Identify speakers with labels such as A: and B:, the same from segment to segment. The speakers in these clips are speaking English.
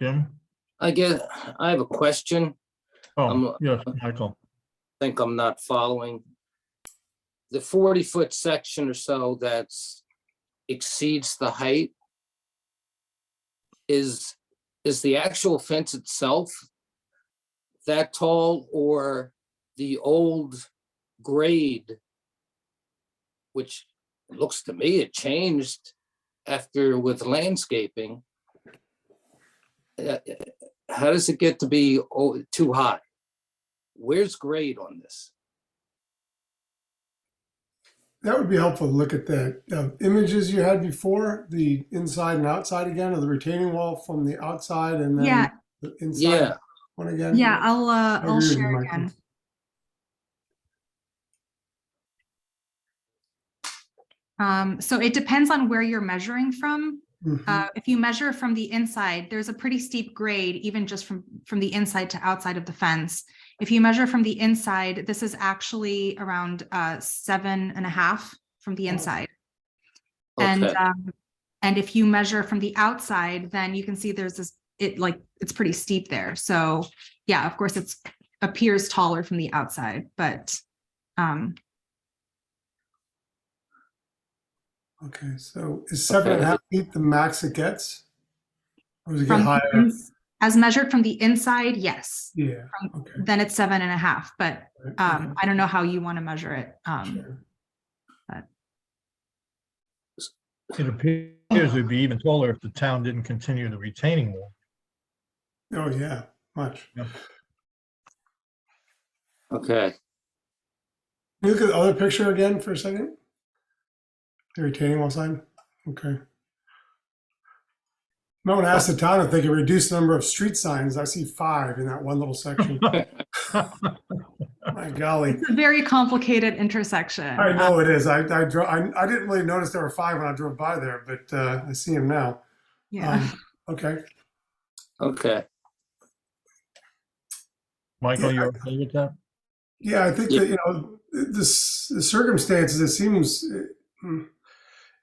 A: Jim?
B: I guess, I have a question.
A: Oh,
B: I'm-
A: yes, Michael.
B: Think I'm not following. The forty foot section or so that's exceeds the height. Is, is the actual fence itself that tall or the old grade? Which looks to me it changed after with landscaping. Uh, How does it get to be oh, too high? Where's grade on this?
C: That would be helpful to look at the uh, images you had before, the inside and outside again, or the retaining wall from the outside and then
D: Yeah.
C: the inside
B: Yeah,
C: one again.
D: Yeah, I'll, uh,
C: I agree
D: I'll
C: with
D: share
C: Michael.
D: again. Um, so it depends on where you're measuring from.
C: Mhm.
D: Uh, if you measure from the inside, there's a pretty steep grade, even just from, from the inside to outside of the fence. If you measure from the inside, this is actually around, uh, seven and a half from
C: Oh,
D: the inside. And,
B: okay,
D: um, and if you measure from the outside, then you can see there's this, it like, it's pretty steep there. So, yeah, of course, it's appears taller from the outside, but, um,
C: Okay, so is seven and a
B: Okay.
C: half feet the max it gets? Or does it get
D: from
C: higher?
D: the ins- as measured from the inside, yes,
C: Yeah,
D: from-
C: okay.
D: then it's seven and a half, but,
C: right,
D: um, I don't know how you want to measure it.
C: okay,
D: Um,
C: sure.
A: It appears it'd be even taller if the town didn't continue the retaining wall.
C: Oh, yeah, much.
B: okay.
C: Can you Look at the other picture again for a second. The retaining wall sign, okay. No one asked the town if they could reduce the number of street signs. I see five in that one little section. My golly.
D: It's a very complicated intersection.
C: I
D: Um,
C: know it is. I, I drove, I, I didn't really notice there were five when I drove by there, but, uh, I see him now.
D: Yeah,
C: Um, Okay,
B: Okay,
A: Michael,
C: Yeah, I-
A: you okay with that?
C: yeah, I think that, you know, this, the circumstances, it seems, uh, hmm.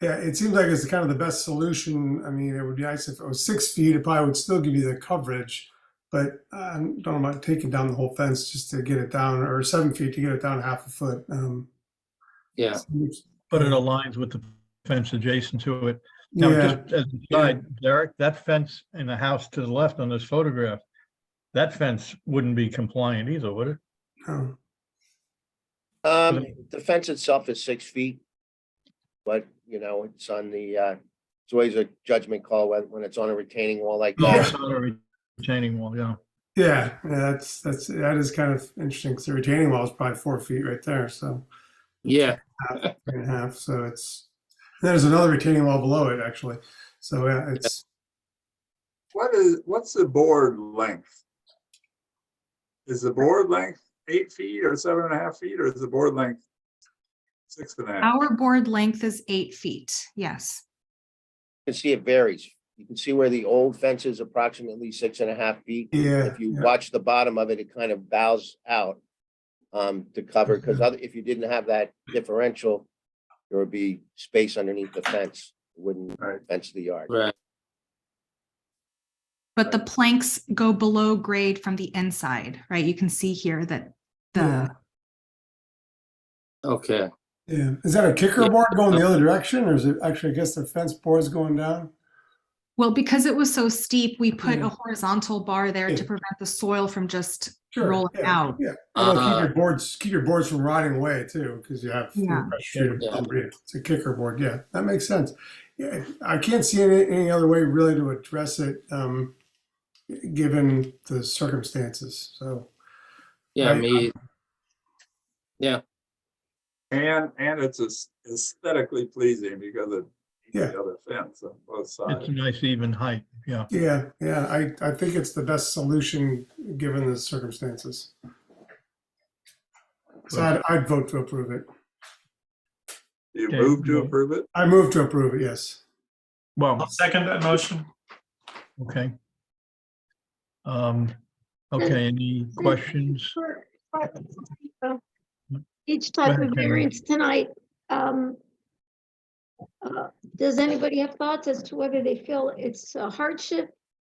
C: yeah, it seems like it's kind of the best solution. I mean, it would be nice if it was six feet, it probably would still give you the coverage. But uh, I don't know about taking down the whole fence just to get it down, or seven feet to get it down half a foot. Um,
B: yeah,
A: But it aligns with the fence adjacent to it. Now,
C: yeah.
A: just as an aside, Derek, that fence in the house to the left on this photograph, that fence wouldn't be compliant either, would it?
C: no.
E: Um, the fence itself is six feet. But, you know, it's on the, uh, it's always a judgment call when, when it's on a retaining wall like
A: No,
E: that.
A: it's not a retaining wall, yeah.
C: Yeah, yeah, that's that's that is kind of interesting because the retaining wall is probably four feet right there, so
B: yeah,
C: three and a half. So it's and there's another retaining wall below it actually. So yeah, it's
F: What is, what's the board length? Is the board length eight feet or seven and a half feet, or is the board length six and a half?
D: our board length is eight feet, yes.
E: You can see it varies. You can see where the old fence is approximately six and a half feet.
C: yeah,
E: If you
C: yeah,
E: watch the bottom of it, it kind of bows out um, to cover, because other, if you didn't have that differential, there would be space underneath the fence, wouldn't
F: Right.
E: fence the yard.
B: right,
D: But the planks go below grade from the inside, right? You can see here that
C: Yeah.
D: the,
B: okay.
C: yeah. Is that a kicker
B: Yeah.
C: board going the other direction, or is it actually? I guess the fence board's going down.
D: well, because it was so steep, we put
C: Yeah.
D: a horizontal bar there to
C: Yeah.
D: prevent the soil from just
C: Sure,
D: rolling
C: yeah,
D: out.
C: yeah. It'll keep
B: Uh,
C: your boards keep your boards from rotting away too, because you have
D: Yeah.
C: pressure
B: Yeah.
C: It's a kicker board. Yeah, that makes sense. Yeah, I can't see any, any other way really to address it, um, given the circumstances. So
B: Yeah,
C: Right.
B: me,
F: And, and it's aes- aesthetically pleasing because of
C: Yeah.
F: the other fence on both
A: It's a
F: sides.
A: nice even height, yeah.
C: yeah, yeah, I, I think it's the best solution given the circumstances. So I'd, I'd vote to approve it.
F: Do you
A: Okay.
F: move to approve it?
C: I move to approve it. Yes.
A: Well,
G: second that motion.
A: okay. Um, okay,
H: Mm.
A: any questions?
H: For- for- Each
A: ahead,
H: type of
A: Tammy.
H: variance tonight, um, uh, does anybody have thoughts as to whether they feel it's a hardship